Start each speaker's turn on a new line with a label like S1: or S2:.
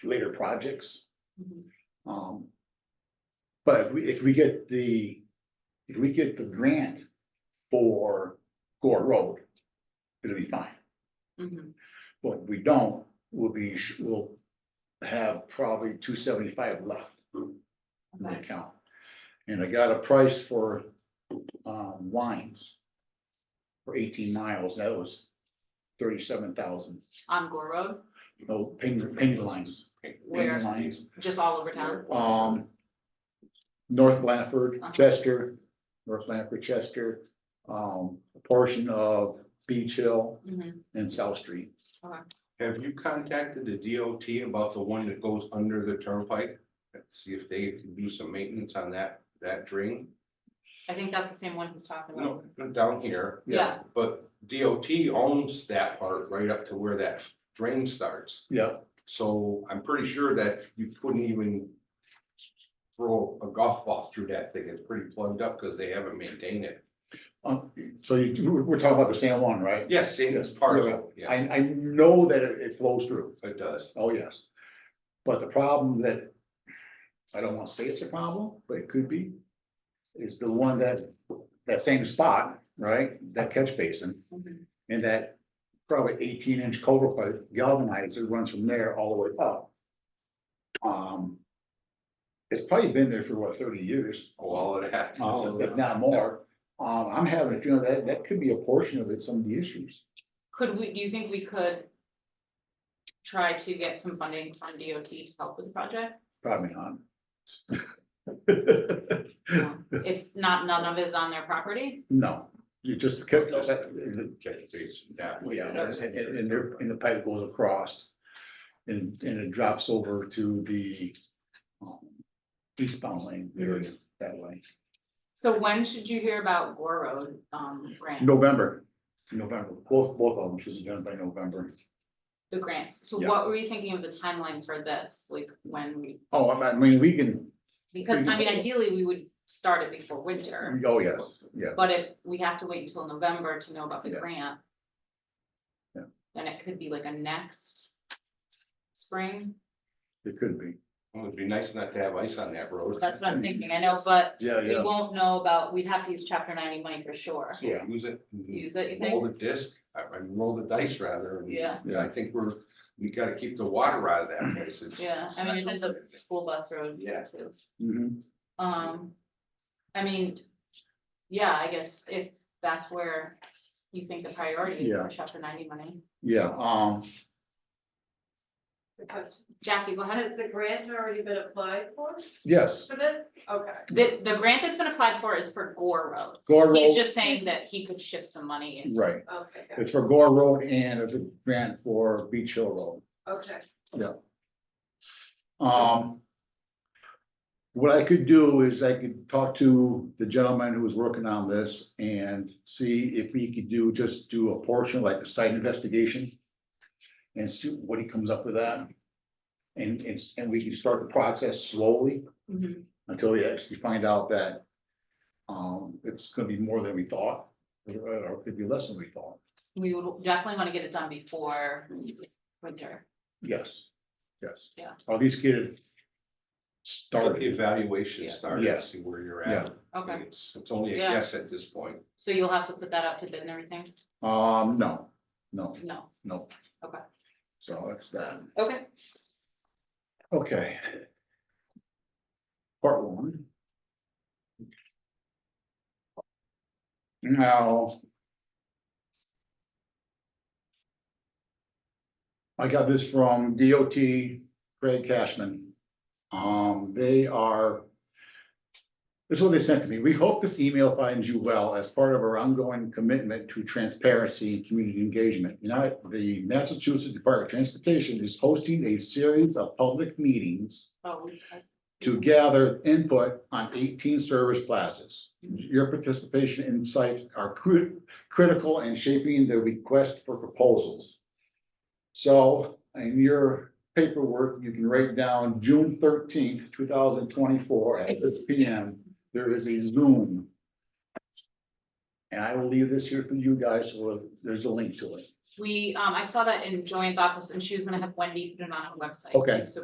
S1: later projects.
S2: Mhm.
S1: Um. But if we, if we get the, if we get the grant for Gore Road, it'll be fine.
S2: Mhm.
S1: But if we don't, we'll be, sh- we'll have probably two seventy-five left in the
S2: Okay.
S1: account. And I got a price for, um, lines. For eighteen miles, that was thirty-seven thousand,
S2: On Gore Road,
S1: no, painted, painted lines, painted
S2: Where?
S1: lines,
S2: just all over town?
S1: um. North Blanford,
S2: Uh-huh.
S1: Chester, North Blanford, Chester, um, a portion of Beach Hill
S2: Mhm.
S1: and South Street.
S3: Have you contacted the DOT about the one that goes under the turnpike? See if they can do some maintenance on that, that drain?
S2: I think that's the same one who's talking about.
S3: No, down here,
S2: Yeah,
S3: but DOT owns that part right up to where that drain starts.
S1: Yeah,
S3: So I'm pretty sure that you couldn't even throw a golf ball through that thing. It's pretty plugged up because they haven't maintained it.
S1: um, so you, we're, we're talking about the San Juan, right?
S3: Yes, same as
S1: Yes,
S3: part of
S1: yeah.
S3: it. Yeah,
S1: I, I know that it it flows through,
S3: it does.
S1: oh yes. But the problem that, I don't wanna say it's a problem, but it could be, is the one that, that same spot, right, that catch basin.
S2: Mhm.
S1: And that probably eighteen inch culvert pipe galvanizer runs from there all the way up. Um. It's probably been there for what, thirty years?
S3: Oh, All of that.
S1: uh, If not more, um, I'm having a feeling that, that could be a portion of it, some of the issues.
S2: could we, do you think we could try to get some funding from DOT to help with the project?
S1: Probably not.
S2: No. It's not, none of it is on their property?
S1: No, you just kept,
S3: No.
S1: that-
S3: Catch basin, that way.
S1: yeah, and, and and there, and the pipe goes across. And, and it drops over to the um, eastbound lane area that way.
S2: So when should you hear about Gore Road, um, grant,
S1: November, November, both, both of them should be done by November.
S2: the grants? So
S1: Yeah.
S2: what were you thinking of the timeline for this, like when we,
S1: Oh, I I mean, we can,
S2: because I mean
S1: Mhm.
S2: ideally we would start it before winter.
S1: oh, yes, yeah,
S2: But if we have to wait until November to know about the
S1: Yeah.
S2: grant.
S1: Yeah.
S2: Then it could be like a next spring,
S1: it could be.
S3: Well, It'd be nice not to have ice on that road.
S2: that's what I'm thinking, I know, but
S1: Yeah,
S2: we won't know about, we'd have to use chapter ninety money for sure.
S3: So
S1: Yeah.
S3: Use it.
S1: Hmm.
S3: Mm-hmm.
S2: Use it, you
S3: Roll
S2: think?
S3: the disc, I, I roll the dice rather. and
S2: Yeah,
S3: I think we're, we gotta keep the water out of that place. It's-
S2: yeah, I mean, it is a school bus road.
S3: Yeah.
S2: too.
S1: Mhm.
S2: Um, I mean, yeah, I guess if that's where you think the priority is
S1: Yeah.
S2: for chapter ninety money.
S1: Yeah, um,
S2: Jackie, go ahead.
S4: Has the grant already been applied for,
S1: yes,
S4: for this? Okay.
S2: The, the grant that's been applied for is for Gore Road.
S1: Gore
S2: He's
S1: Road,
S2: just saying that he could shift some money and
S1: right,
S4: Okay, got it.
S1: it's for Gore Road and it's a grant for Beach Hill Road.
S4: okay.
S1: Um. What I could do is I could talk to the gentleman who was working on this and see if he could do, just do a portion like a site investigation. And see what he comes up with that. And it's, and we can start the process slowly
S2: Mhm.
S1: until we actually find out that. Um, it's gonna be more than we thought, or or it could be less than we thought,
S2: we would definitely want to get it done before winter.
S1: yes, yes.
S2: Yeah.
S1: Or at least get it.
S3: Start the
S1: Started,
S3: evaluation
S2: Yeah.
S3: started,
S1: Yes.
S3: see where you're at.
S2: Okay,
S3: It's it's only a
S2: Yeah.
S3: guess at this point.
S2: so you'll have to put that up to bid and everything?
S1: um, no, no.
S2: No,
S1: No.
S2: Okay.
S1: So that's that.
S2: okay.
S1: Okay. Part one. Now. I got this from DOT Craig Cashman. Um, they are. This is what they sent to me. We hope this email finds you well as part of our ongoing commitment to transparency and community engagement. You know, the Massachusetts Department of Transportation is hosting a series of public meetings
S2: Oh, we-
S1: to gather input on eighteen service plazas. Your participation and insights are cru- critical in shaping the request for proposals. So in your paperwork, you can write down June thirteenth, two thousand twenty-four at six P M. There is a Zoom. And I will leave this here for you guys, so there's a link to it.
S2: We, um, I saw that in Joanne's office and she was gonna have Wendy put it on her website.
S1: Okay.
S2: So